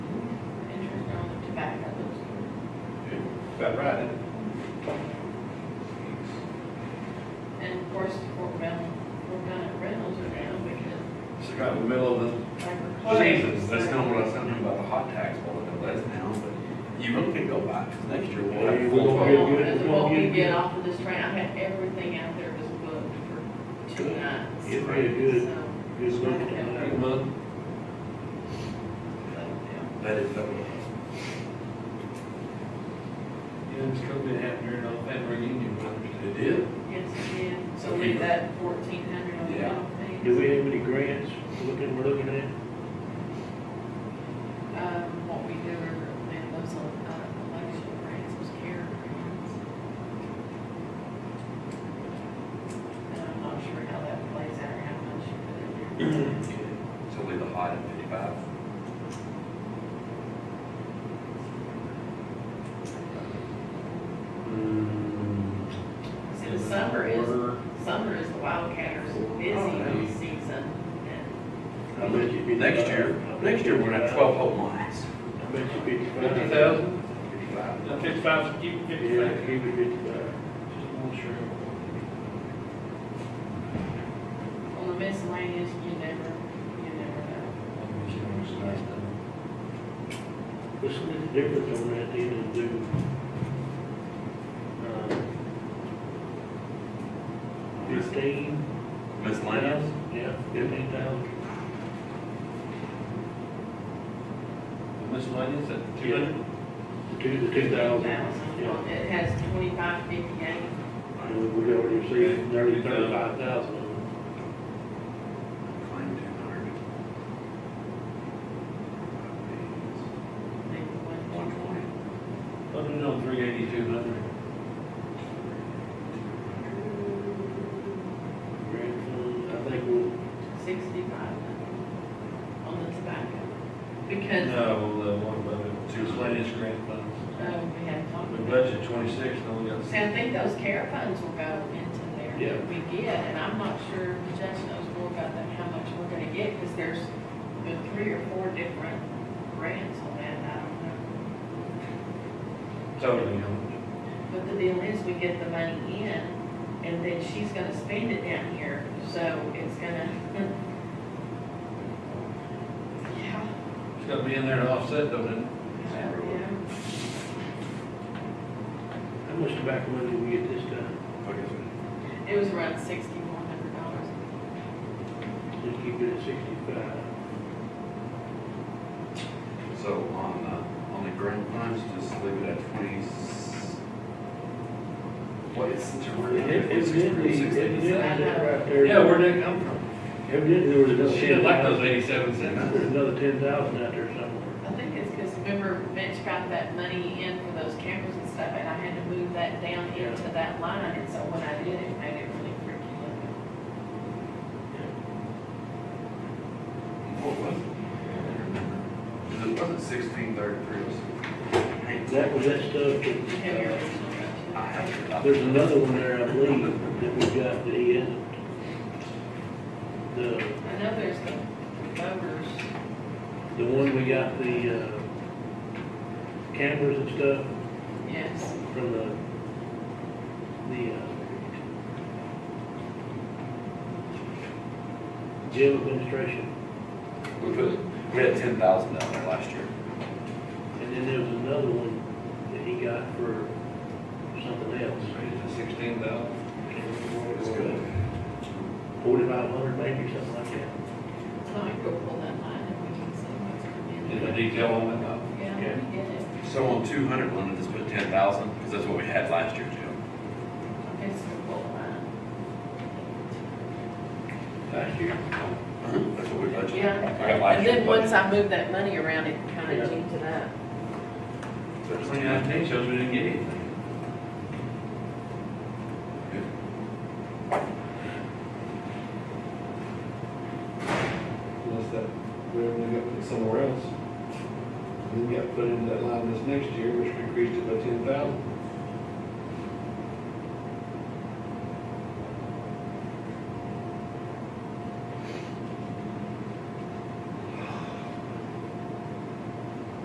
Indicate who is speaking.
Speaker 1: about right, isn't it?
Speaker 2: And of course, Fort Mountain, Fort Mountain Reynolds are down because.
Speaker 1: It's right in the middle of the,
Speaker 2: like,
Speaker 1: Oh,
Speaker 2: the
Speaker 3: Jesus, that's
Speaker 2: plague.
Speaker 3: not what I was telling you about the hot tax bullet, though, that's now, but you really can go by, because next year we'll
Speaker 1: Well,
Speaker 3: have.
Speaker 1: we
Speaker 2: Well,
Speaker 1: won't
Speaker 3: full-
Speaker 2: That's what we get off of this train, I had everything out there was booked for two nights.
Speaker 4: Get ready, good. Good
Speaker 2: So,
Speaker 4: looking.
Speaker 2: yeah,
Speaker 1: every month.
Speaker 2: but, yeah.
Speaker 3: That is, uh,
Speaker 1: Yeah, it's COVID happened during all family reunion, I understand.
Speaker 3: it is.
Speaker 2: Yes, again, so leave that fourteen hundred on the
Speaker 3: Yeah.
Speaker 2: top thing.
Speaker 4: Do we have any grants looking, we're looking at?
Speaker 2: Um, what we do, and those, uh, election grants was care grants. And I'm not sure how that plays out, or how much you put in there.
Speaker 3: So leave the hot at fifty-five.
Speaker 2: See, the summer is, summer is the wildcatters busy season, and
Speaker 4: I bet you.
Speaker 3: Next year, next year, we're gonna have twelve whole months.
Speaker 4: I bet you fifty-five.
Speaker 1: Fifty thousand?
Speaker 3: Fifty-five.
Speaker 1: No, fifty-five, keep
Speaker 4: Yeah,
Speaker 1: fifty-five.
Speaker 4: keep it fifty-five.
Speaker 1: Just want to sure.
Speaker 2: on the miscellaneous, you never, you never know.
Speaker 4: What's the difference on that then and do? uh, Fifteen?
Speaker 3: Miscellaneous,
Speaker 4: Yeah, fifteen thousand.
Speaker 1: Miscellaneous at two hundred?
Speaker 4: The two, the two thousand.
Speaker 2: Well, It has twenty-five fifty-eight,
Speaker 4: And we already received nearly thirty-five thousand.
Speaker 3: claim two hundred.
Speaker 2: maybe one.
Speaker 3: One twenty.
Speaker 1: Hundred on three eighty-two hundred.
Speaker 4: Grant fund, I think we'll,
Speaker 2: sixty-five on the tobacco. Because,
Speaker 1: No, the one above it, two miscellaneous grant funds.
Speaker 2: um, we had talked
Speaker 1: The
Speaker 2: about.
Speaker 1: budget twenty-six, and only got
Speaker 2: See, I think those care funds will go into there that we get, and I'm not sure, Judge knows more about that, how much we're gonna get, because there's been three or four different grants on that, I don't know.
Speaker 1: totally, how much?
Speaker 2: But the deal is, we get the money in, and then she's gonna spend it down here, so it's gonna. Yeah.
Speaker 1: It's gotta be in there to offset, though, then.
Speaker 2: Yeah.
Speaker 4: how much tobacco money did we get this time?
Speaker 2: It was around sixty-one hundred dollars.
Speaker 4: Just keep it at sixty-five.
Speaker 3: So on, uh, on the grant funds, just leave it at twenty. What is the term?
Speaker 4: right there.
Speaker 1: Yeah, where'd that come from?
Speaker 4: Evidently, there was another.
Speaker 1: Shit, I like those
Speaker 4: 10,000.
Speaker 1: eighty-seven cents.
Speaker 4: There's another ten thousand out there somewhere.
Speaker 2: I think it's because remember Mitch got that money in for those cameras and stuff, and I had to move that down
Speaker 4: Yeah.
Speaker 2: into that line, and so when I did, it made it really freaky looking.
Speaker 3: What was it? It wasn't sixteen thirty-three or something.
Speaker 4: That was that
Speaker 2: You
Speaker 4: stuff
Speaker 2: have your
Speaker 4: that,
Speaker 2: original
Speaker 3: I
Speaker 2: right
Speaker 3: have
Speaker 4: uh,
Speaker 3: to-
Speaker 4: there's another one there, I believe, that we got that he hasn't. The,
Speaker 2: to it. I know there's the voters,
Speaker 4: the one we got the, uh, cameras and stuff
Speaker 2: yes,
Speaker 4: from the, the, uh, jail administration.
Speaker 3: We put, we had ten thousand down there last year.
Speaker 4: And then there was another one that he got for something else.
Speaker 1: Sixteen thousand.
Speaker 3: It's good.
Speaker 4: Forty-five hundred maybe, or something like that.
Speaker 2: so I go pull that line and we can see what's coming
Speaker 1: Did the
Speaker 2: in.
Speaker 1: detail on that?
Speaker 2: Yeah, we
Speaker 4: Yeah.
Speaker 2: get it.
Speaker 3: So on two hundred one, I just put ten thousand, because that's what we had last year, Jim.
Speaker 2: Okay, so pull line.
Speaker 4: Last year.
Speaker 3: That's what we budgeted.
Speaker 2: Yeah.
Speaker 3: I got last
Speaker 2: And
Speaker 3: year's
Speaker 2: then once
Speaker 3: budget.
Speaker 2: I moved that money around, it kind
Speaker 4: Yeah.
Speaker 2: of jinked it up.
Speaker 3: So it's
Speaker 1: Twenty
Speaker 3: 10,000.
Speaker 1: nineteen shows we didn't get anything. Unless that revenue got put somewhere else. And then got put into that line this next year, which increased it by ten thousand.